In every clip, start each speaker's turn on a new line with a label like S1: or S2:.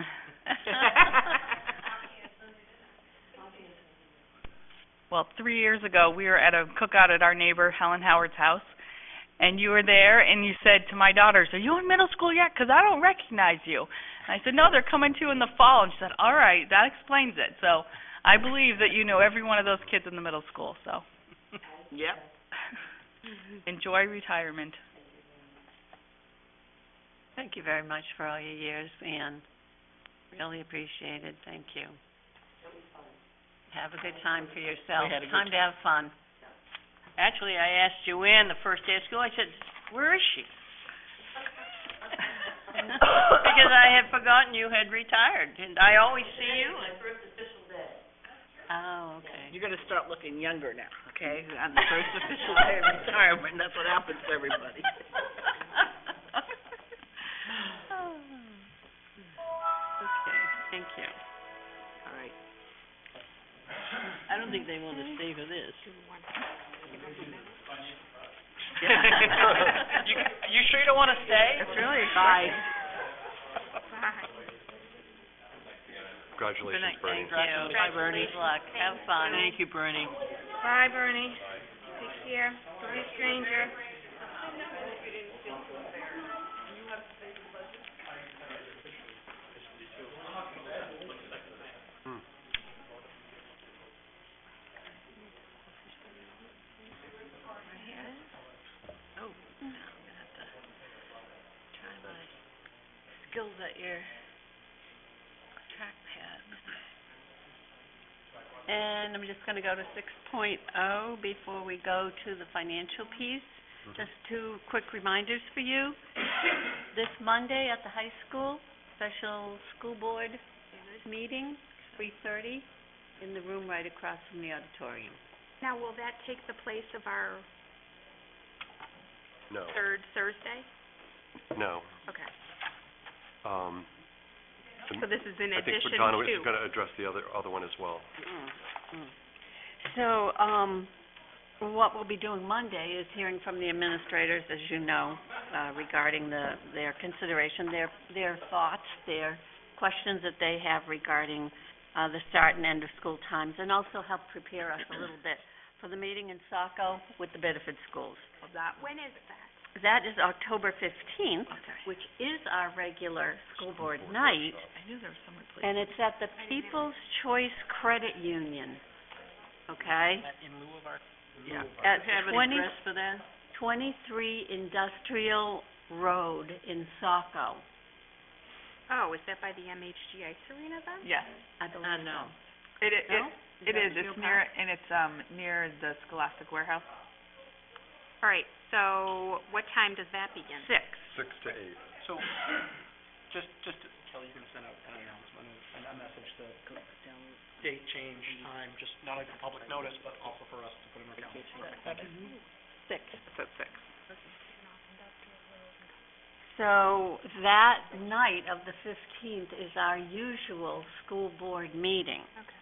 S1: well, three years ago, we were at a cookout at our neighbor Helen Howard's house, and you were there, and you said to my daughters, "Are you in middle school yet? Because I don't recognize you." And I said, "No, they're coming to you in the fall." And she said, "All right, that explains it." So I believe that you know every one of those kids in the middle school. So
S2: Yep.
S1: enjoy retirement.
S3: Thank you very much for all your years, Anne. Really appreciate it, thank you. Have a good time for yourself.
S2: We had a good
S3: Time to have fun.
S2: Actually, I asked Joanne the first day of school, I said, where is she? Because I had forgotten you had retired, and I always see you and...
S3: Oh, okay.
S2: You're gonna start looking younger now, okay? On the first official day of retirement, that's what happens to everybody.
S3: Okay, thank you.
S2: All right. I don't think they want to stay for this.
S3: You-
S2: you sure you don't want to stay?
S3: That's really
S2: Bye.
S4: Congratulations, Bernie.
S3: Thank you.
S2: Bye, Bernie.
S3: Good luck, have fun.
S2: Thank you, Bernie.
S5: Bye, Bernie. Take care. Don't be a stranger.
S3: Oh, now I'm gonna have to try my skills at your trackpad. And I'm just gonna go to six oh before we go to the financial piece. Just two quick reminders for you. This Monday at the high school, special school board meeting, three thirty, in the room right across from the auditorium.
S5: Now, will that take the place of our
S4: No,
S5: third Thursday?
S4: no.
S5: Okay.
S4: Um,
S5: So this is in
S4: I think
S5: addition
S4: Donna is
S5: to.
S4: going to address the other, other one as well.
S3: So, um, what we'll be doing Monday is hearing from the administrators, as you know, uh, regarding the, their consideration, their, their thoughts, their questions that they have regarding, uh, the start and end of school times, and also help prepare us a little bit for the meeting in Saco with the Bedford schools.
S5: When is that?
S3: That is October fifteenth,
S5: Okay.
S3: which is our regular school board night,
S1: I knew there was some replacement.
S3: and it's at the People's Choice Credit Union, okay?
S2: Yeah.
S3: At
S2: Have an
S3: 20
S2: address for that?
S3: 23 Industrial Road in Saco.
S5: Oh, is that by the MHG Ice Arena then?
S6: Yes,
S3: I believe
S2: Uh,
S3: so.
S2: no.
S6: it, it,
S3: No?
S6: it
S3: that
S6: is,
S3: your
S6: it's near, and it's, um, near the Scholastic Warehouse.
S5: All right, so what time does that begin?
S6: Six.
S4: Six to eight.
S3: Mm-hmm. Six.
S6: It's at six.
S3: So that night of the 15th is our usual school board meeting.
S5: Okay.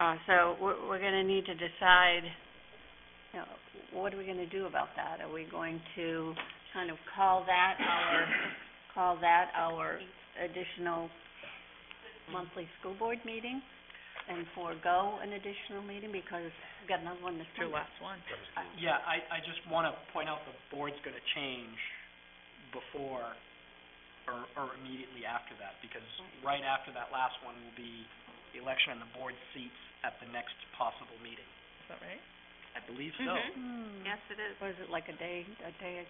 S3: Uh, so we're, we're gonna need to decide, you know, what are we gonna do about that? Are we going to kind of call that our, call that our additional monthly school board meeting? And forego an additional meeting because we've got another one this
S6: It's your
S3: Monday?
S6: last one.
S7: Yeah, I, I just want to point out the board's going to change before or, or immediately after that, because right after that last one will be the election and the board seats at the next possible meeting.
S6: Is that right?
S7: I believe so.
S5: Mhm.
S3: Hmm.
S5: Yes, it is.
S3: What is it, like a day, a day?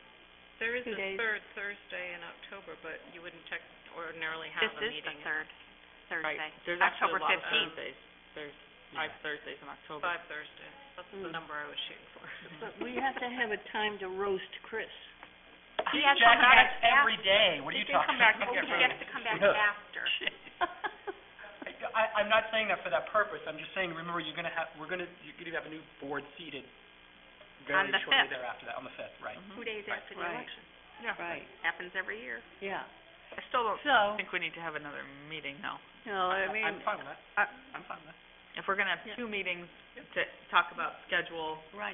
S8: There is
S3: Two
S8: a
S3: days.
S8: third Thursday in October, but you wouldn't tec- ordinarily
S5: This
S8: have a
S5: is
S8: meeting.
S5: the third Thursday.
S6: There's
S5: actually a lot of
S6: Thursdays. There's
S7: five
S6: Thursdays in October.
S8: Five Thursdays. That's the
S3: Mm.
S8: number I was shooting for.
S3: But we have to have a time to roast Chris.
S5: He has to
S7: Jack,
S5: come back
S7: that's every day. What are
S5: He
S7: you
S5: can
S7: talking
S5: come back,
S7: about?
S5: he has to come back
S7: Yeah.
S5: after.
S7: I, I'm not saying that for that purpose. I'm just saying, remember, you're going to have, we're going to, you're going to have a new board seated
S5: On
S7: very
S5: the
S7: shortly
S5: fifth.
S7: thereafter, that, on the fifth, right?
S5: Two days
S7: Right.
S5: after the
S3: Right.
S5: election.
S3: Right,
S5: Happens every year.
S3: yeah.
S6: I still don't
S3: So,
S6: think we need to have another meeting, no.
S3: no, I
S7: I-
S3: mean,
S7: I'm fine with that.
S6: I-
S7: I'm fine with that.
S6: If we're gonna have
S3: Yeah.
S6: two meetings to talk about schedule,
S3: right.